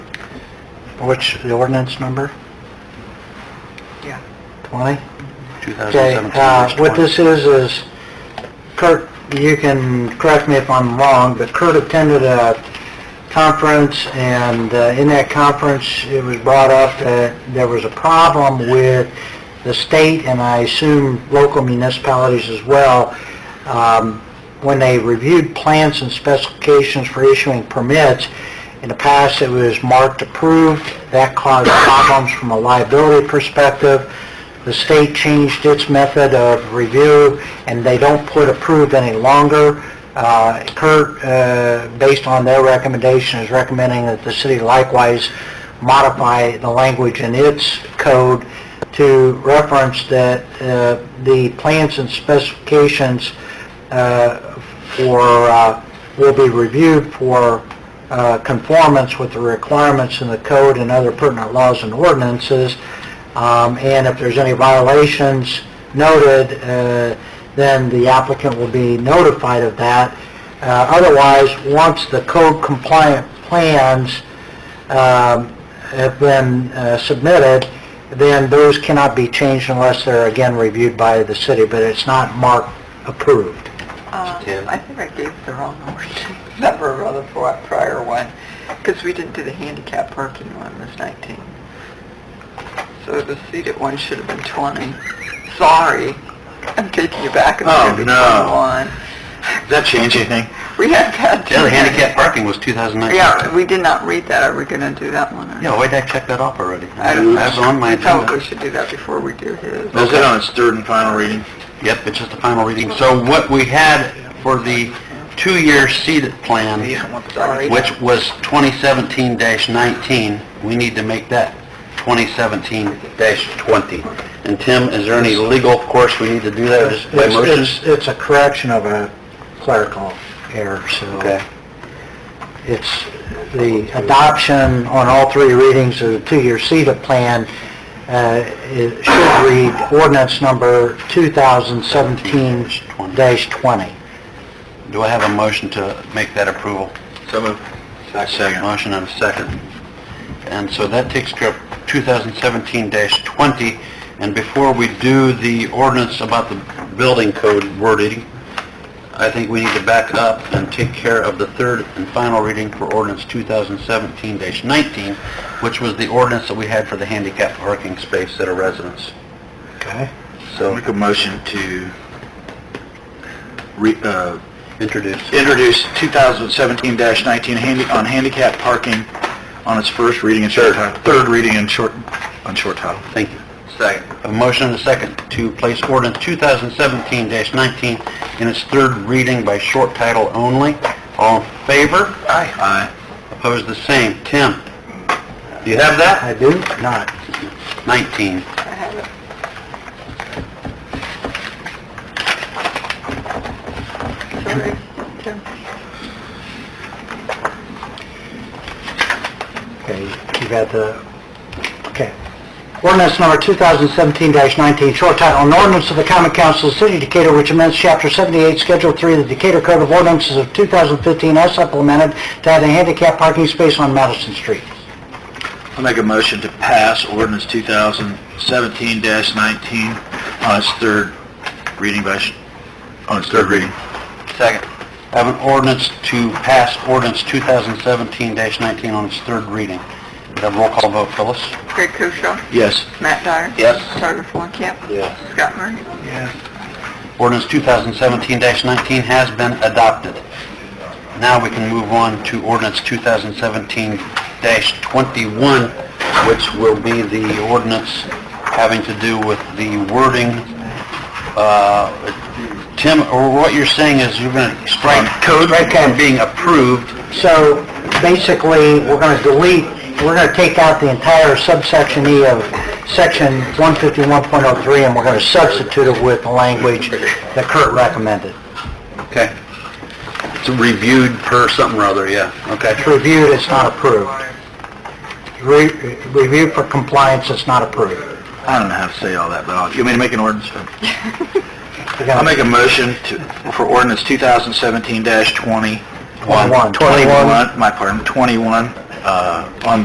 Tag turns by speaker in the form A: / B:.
A: What's the ordinance number?
B: Yeah.
A: 20?
C: 2017
A: Okay, uh,
C: verse
A: What
C: 20.
A: this is, is Kurt, you can correct me if I'm wrong, but Kurt attended a conference, and uh, in that conference, it was brought up that there was a problem with the state, and I assume local municipalities as well, um, when they reviewed plans and specifications for issuing permits, in the past, it was marked approved. That caused problems from a liability perspective. The state changed its method of review, and they don't put approved any longer. Uh, Kurt, uh, based on their recommendation, is recommending that the city likewise modify the language in its code to reference that uh, the plans and specifications uh, for, uh, will be reviewed for uh, conformance with the requirements in the code and other pertinent laws and ordinances. Um, And if there's any violations noted, uh, then the applicant will be notified of that. Uh, Otherwise, once the code compliant plans um, have been uh, submitted, then those cannot be changed unless they're again reviewed by the city, but it's not marked approved.
C: Tim?
B: Um, I think I gave the wrong number, number rather for our prior one, because we didn't do the handicap parking one, it was 19. So the seated one should have been 20. Sorry, I'm taking you back. It's
C: Oh,
B: gonna be
C: no.
B: 21.
C: Does that change anything?
B: We haven't had...
C: Yeah, the handicap parking was 2019.
B: Yeah, we did not read that. Are we going to do that one? or-
C: Yeah, why did I check that off already?
B: I don't know.
C: That's on my
B: I thought we
C: agenda.
B: should do that before we do his.
C: Is it on its
D: third and final reading.
C: Yep, it's just a final reading. So what we had for the two-year seated plan,
B: Sorry.
C: which was 2017-19, we need to make that 2017-20. And Tim, is there any legal course we need to do that, or just by
A: It's-
C: motion?
A: It's, it's a correction of a clerical error, so
C: Okay.
A: it's the adoption on all three readings of the two-year CETA plan, uh, it should read ordinance number 2017-20.
C: Do I have a motion to make that approval?
D: So moved.
C: Second. Motion and a second. And so that takes care of 2017-20. And before we do the ordinance about the building code wording, I think we need to back up and take care of the third and final reading for ordinance 2017-19, which was the ordinance that we had for the handicap parking space at a residence.
A: Okay.
C: So
D: Make a motion to re, uh,
C: introduce.
D: introduce 2017-19 handi- on handicap parking on its first reading and short title, third reading and short, on short title.
C: Thank you. Second. A motion and a second to place ordinance 2017-19 in its third reading by short title only. All in favor?
D: Aye.
C: Opposed, the same. Tim? Do you have that?
A: I do not.
C: 19.
B: I have it. Sorry, Tim.
A: Okay, you've got the, okay. Ordinance number 2017-19, short title, an ordinance of the common council of the city of Decatur which amends chapter 78, schedule 3 of the Decatur Code of Ordinances of 2015 as supplemented to add a handicap parking space on Madison Street.
D: I'll make a motion to pass ordinance 2017-19 on its third reading by, sh- on its third reading.
C: Second. I have an ordinance to pass ordinance 2017-19 on its third reading. We have roll call vote, Phyllis?
B: Craig Koshaw.
D: Yes.
B: Matt Dyer.
C: Yes.
B: Tyler Fulenkamp.
C: Yes.
B: Scott Murray.
C: Ordinance 2017-19 has been adopted. Now we can move on to ordinance 2017-21, which will be the ordinance having to do with the wording. uh, Tim, or what you're saying is you're going to strike
D: Uh,
C: code from being approved.
A: So basically, we're going to delete, we're going to take out the entire subsection E of section 151.03 and we're going to substitute it with the language that Kurt recommended.
C: Okay. It's reviewed per something or other, yeah. Okay.
A: It's reviewed, it's not approved. Re- Reviewed for compliance, it's not approved.
D: I don't know how to say all that, but I'll, you want me to make an ordinance?
A: We got
D: I'll make a motion to, for ordinance 2017-20.
A: One.
D: 21, my pardon, 21, uh, on